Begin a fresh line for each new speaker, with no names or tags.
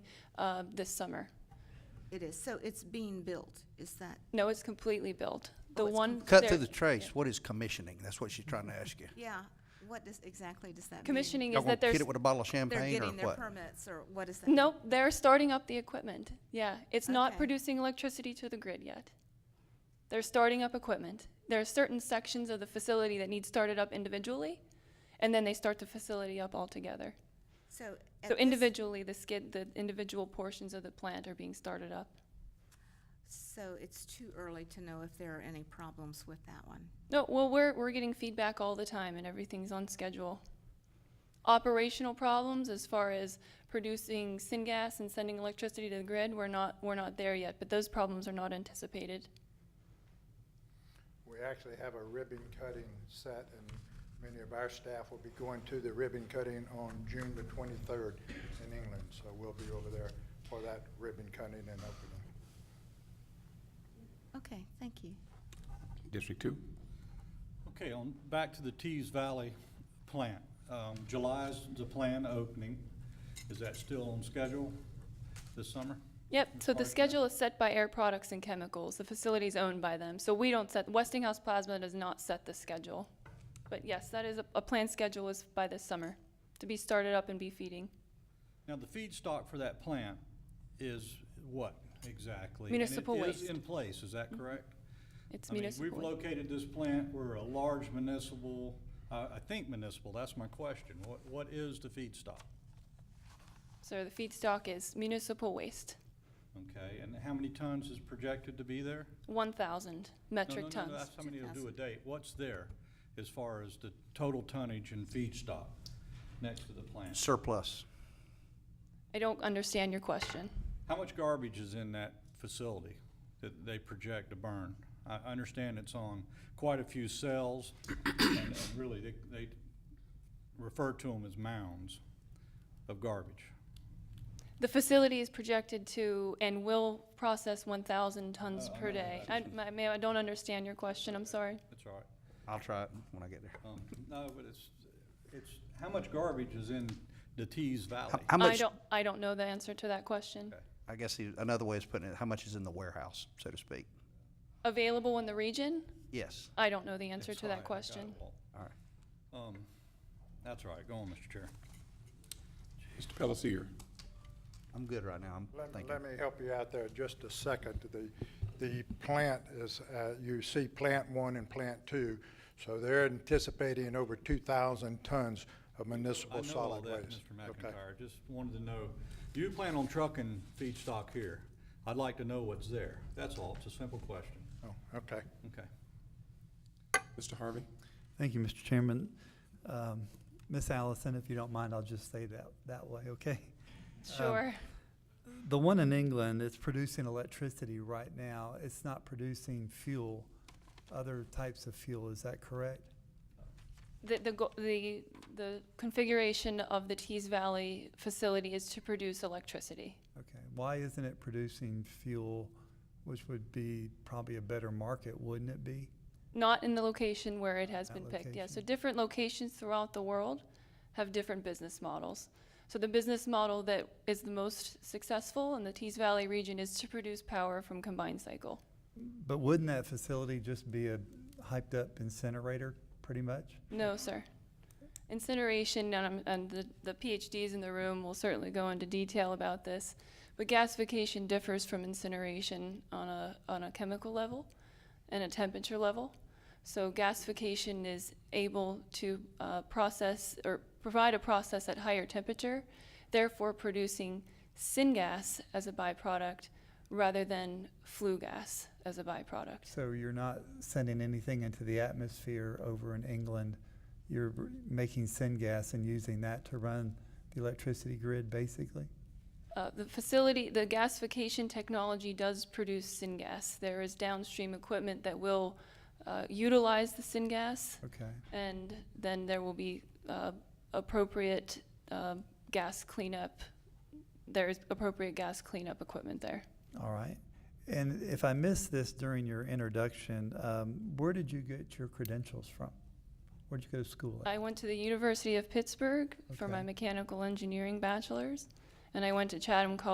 uh, this summer.
It is, so it's being built, is that,
No, it's completely built. The
Oh, it's
one.
Cut
there-
through the trace, what is commissioning? That's what she's trying to ask you.
yeah, what does, exactly does that mean?
Commissioning
Y'all
is
gonna
that there's.
hit it with a bottle of
They're
champagne or
getting their
what?
permits, or what is that?
Nope, they're starting up the equipment. Yeah, it's not
Okay.
producing electricity to the grid yet. They're starting up equipment. There are certain sections of the facility that need started up individually, and then they start the facility up altogether.
So. at
So
this-
individually, the skid, the individual portions of the plant are being started up.
So it's too early to know if there are any problems with that one.
No, well, we're, we're getting feedback all the time and everything's on schedule. Operational problems as far as producing syngas and sending electricity to the grid, we're not, we're not there yet, but those problems are not anticipated.
We actually have a ribbon cutting set, and many of our staff will be going to the ribbon cutting on June the twenty-third in England. So we'll be over there for that ribbon cutting and opening.
Okay, thank you.
District two?
Okay, on, back to the Tees Valley plant. Um, July's the planned opening. Is that still on schedule this summer?
Yep, so the
Requires that.
schedule is set by Air Products and Chemicals. The facility is owned by them, so we don't set, Westinghouse Plasma does not set the schedule. But yes, that is, a- a planned schedule is by this summer, to be started up and be feeding.
Now, the feedstock for that plant is what exactly?
Municipal
And it
waste.
is in place, is that correct?
It's
I mean, We've
municipal.
located this plant, we're a large municipal, uh, I think municipal, that's my question. What, what is the feedstock?
So the feedstock is municipal waste,
Okay, and how many tons is projected to be there?
one thousand
No,
metric
no, no,
tons.
That's how many will do a date. What's there as far as the total tonnage and feedstock next to the plant?
Surplus.
I don't understand your question.
How much garbage is in that facility that they project to burn? I I understand it's on quite a few cells, and and really, they, they refer to them as mounds of garbage.
The facility is projected to and will process one thousand tons
Oh, I
per
know
day. I,
that.
I, may- I don't understand your question, I'm sorry.
That's all right.
I'll try it when I get there.
Um, No, but it's, it's, how much garbage is in the Tees Valley?
How- How
I
much,
don't, I don't know the answer to that question.
Okay.
I guess the- another way is putting it, how much is in the warehouse, so to speak?
Available in the region?
Yes,
I don't know the answer
It's
to
fine, I
that
got
question.
it all.
all right.
Um, that's all right, go on, Mr. Chair.
Mr. Pelletier?
I'm good right now, I'm
Let,
thinking.
let me help you out there just a second. The, the plant is, uh, you see plant one and plant two. So they're anticipating over two thousand tons of municipal
I know all
solid
that,
waste.
Mr.
Okay.
McIntyre, just wanted to know, do you plan on trucking feedstock here? I'd like to know what's there, that's all, it's a simple question,
Oh, okay.
okay.
Mr. Harvey?
Thank you, Mr. Chairman. Um, Ms. Allison, if you don't mind, I'll just say that that way, okay?
Sure.
Um,
The one in England, it's producing electricity right now. It's not producing fuel, other types of fuel, is that correct?
The, the, go- the, the configuration of the Tees Valley facility is to produce electricity.
Okay, why isn't it producing fuel, which would be probably a better market, wouldn't it be?
Not in the location where it has
That
been picked, yeah. So
location.
different locations throughout the world have different business models. So the business model that is the most successful in the Tees Valley region is to produce power from combined cycle.
But wouldn't that facility just be a hyped-up incinerator, pretty much?
No, sir. Incineration, and, I'm- and the, the PhDs in the room will certainly go into detail about this, but gasification differs from incineration on a, on a chemical level and a temperature level. So gasification is able to uh, process or provide a process at higher temperature, therefore producing syngas as a byproduct rather than flue gas as a byproduct.
So you're not sending anything into the atmosphere over in England. You're r- making syngas and using that to run the electricity grid, basically?
Uh, The facility, the gasification technology does produce syngas. There is downstream equipment that will uh, utilize the syngas,
Okay.
and then there will be uh, appropriate uh, gas cleanup. There is appropriate gas cleanup equipment there.
All right. And if I missed this during your introduction, um, where did you get your credentials from? Where'd you go to school at?
I went to the University of Pittsburgh for my
Okay.
mechanical engineering bachelor's, and I went to Chatham College